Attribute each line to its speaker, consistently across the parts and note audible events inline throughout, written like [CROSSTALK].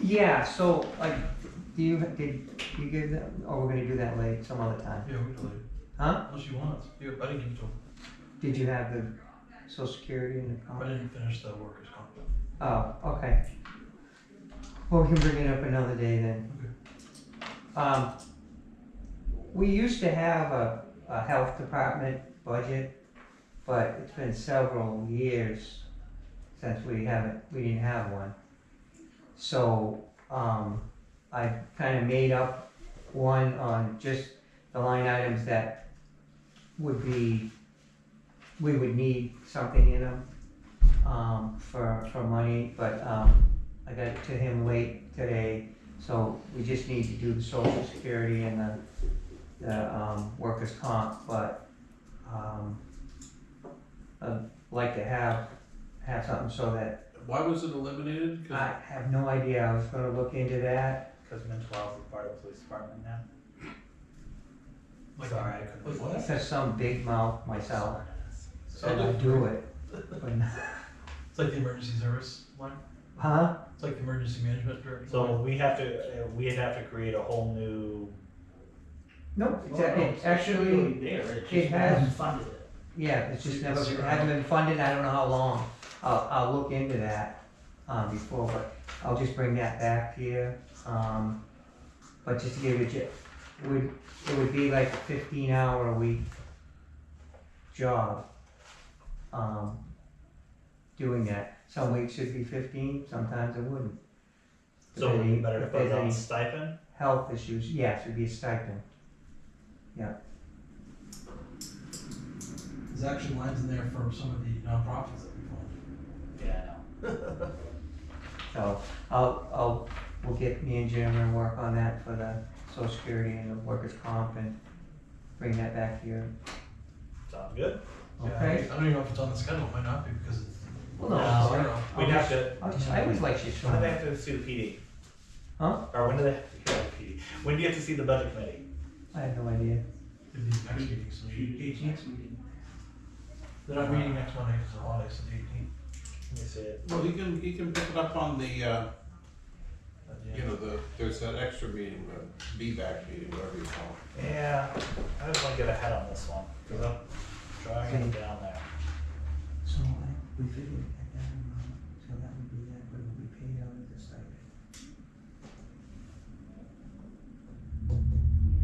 Speaker 1: Yeah, so like, do you, did you give that, oh, we're gonna do that late, some other time.
Speaker 2: Yeah, we delete it.
Speaker 1: Huh?
Speaker 2: Unless you want. Yeah, I didn't give it to him.
Speaker 1: Did you have the social security and the
Speaker 2: I
Speaker 1: comp?
Speaker 2: didn't finish the workers' comp.
Speaker 1: Oh, okay. Well, we can bring it up another day then. Um, we used to have a, a health department budget, but it's been several years since we haven't, we didn't have one. So, um, I kinda made up one on just the line items that would be, we would need something in them um, for, for money, but, um, I got it to him late today, so we just need to do the social security and the, the, um, workers' comp, but, um, I'd like to have, have something so that,
Speaker 3: Why was it eliminated? 'Cause-
Speaker 1: I have no idea, I was gonna look into that.
Speaker 4: Because mental health is part of the police department now.
Speaker 2: Like,
Speaker 4: Sorry, I couldn't.
Speaker 2: Like what?
Speaker 1: Because some big mouth myself
Speaker 2: So
Speaker 1: said I'd do it, but, not-
Speaker 2: It's like the emergency service line.
Speaker 1: huh?
Speaker 2: It's like the emergency management director.
Speaker 4: So
Speaker 2: line.
Speaker 4: we have to, uh, we'd have to create a whole new,
Speaker 1: No, it's,
Speaker 5: Well, no,
Speaker 1: it's
Speaker 5: it should
Speaker 1: actually.
Speaker 5: really there, it's
Speaker 1: it
Speaker 5: just
Speaker 1: has-
Speaker 5: hasn't funded it.
Speaker 1: Yeah, it's just
Speaker 2: You
Speaker 1: never,
Speaker 2: consider-
Speaker 1: hasn't been funded, I don't know how long, I'll, I'll look into that, um, before, but I'll just bring that back here, um, but just to give you, a ge- would, it would be like a fifteen hour a week job, um, doing that, some weeks it'd be fifteen, sometimes it wouldn't. If
Speaker 4: so it would
Speaker 1: any-
Speaker 4: be better to
Speaker 1: if
Speaker 4: put
Speaker 1: there's
Speaker 4: it on
Speaker 1: any
Speaker 4: stipend?
Speaker 1: Health issues, yes, it'd be a stipend,
Speaker 2: There's actually lines in there for some of the nonprofits that we fund.
Speaker 4: Yeah, I know. [LAUGHS]
Speaker 1: so, I'll, I'll, we'll get me and Jim and work on that for the social security and the workers' comp and bring that back here,
Speaker 4: Sounds good.
Speaker 2: Yeah,
Speaker 1: okay?
Speaker 2: I don't even know if it's on the schedule. It might not be because it's
Speaker 1: Well, no,
Speaker 4: No.
Speaker 2: zero.
Speaker 4: We'd
Speaker 1: I'll just-
Speaker 4: have to,
Speaker 1: I'll just- I always like you,
Speaker 4: when do they
Speaker 1: Sean.
Speaker 4: have to sue PD?
Speaker 1: Huh?
Speaker 4: Or when do they, have to sue PD? when do you have to see the budget committee?
Speaker 1: I have no idea.
Speaker 2: It'd be next meeting, so the eighteenth. They're not meeting next Monday because of the holiday, so the eighteenth.
Speaker 4: Let me see it.
Speaker 3: Well, you can, you can pick it up on the, uh, you
Speaker 4: Yeah.
Speaker 3: know, the, there's that extra meeting, the B-back meeting, whatever you call it.
Speaker 4: Yeah, I just wanna get ahead on this one, cause I'm trying to get down there.
Speaker 1: So I, we figured at that amount, so that would be that, but it would be paid out of the stipend.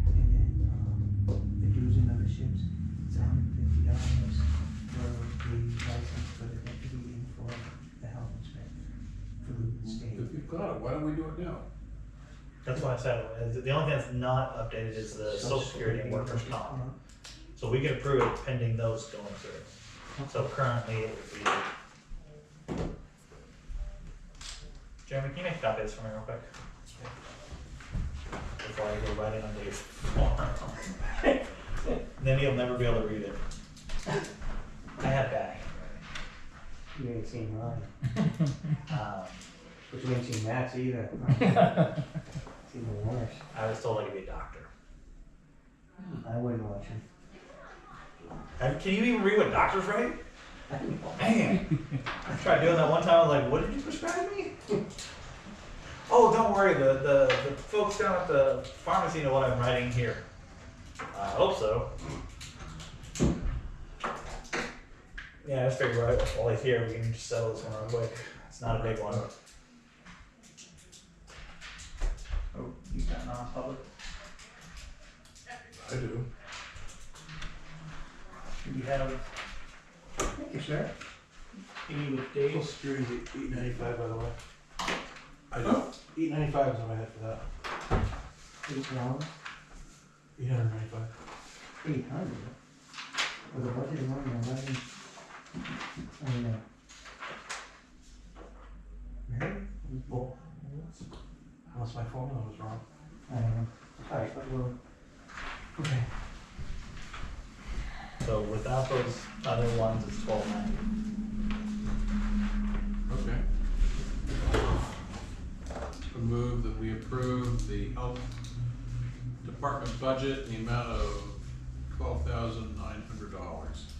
Speaker 1: And then, um, the dues and memberships, it's hundred and fifty dollars for the license for the deputy and for the health inspector through the state.
Speaker 3: If you've got it, why don't we do it now?
Speaker 4: That's why I said, uh, the only thing that's not updated is the social security and workers' comp. So we can approve it pending those going through. So currently it would be. Jeremy, can you make copies for me real quick? Before I go writing on Dave's form. [LAUGHS] Then he'll never be able to read it. I have that.
Speaker 1: You ain't seen mine,
Speaker 4: Um,
Speaker 1: but you ain't seen Matt's [LAUGHS] either. It's even worse.
Speaker 4: I was told I could be a doctor.
Speaker 1: I wouldn't watch him.
Speaker 4: Have- Can you even read what doctors write? Man, I tried doing that one time. I was like, "What did you prescribe me?" oh, don't worry. The, the the folks down at the pharmacy know what I'm writing here. I hope so. Yeah, I just figured right, while he's here, we can just settle this one real quick. It's not a big one.
Speaker 5: Oh, you got non-public,
Speaker 3: I do.
Speaker 5: you have,
Speaker 1: Thank you, sir.
Speaker 5: any with
Speaker 6: Social
Speaker 5: Dave,
Speaker 6: Security's eight ninety-five, by the way.
Speaker 3: I don't.
Speaker 6: Eight ninety-five is what I had for that.
Speaker 1: Eight dollars,
Speaker 6: Eight hundred ninety-five.
Speaker 1: eight hundred. With a budget of only eleven. I mean, uh. Really?
Speaker 6: Well, unless my formula was wrong.
Speaker 1: I don't know. Alright, but we'll. Okay.
Speaker 4: So without those other ones, it's twelve ninety.
Speaker 3: Okay. I move that we approve the health department budget in the amount of twelve thousand nine hundred dollars.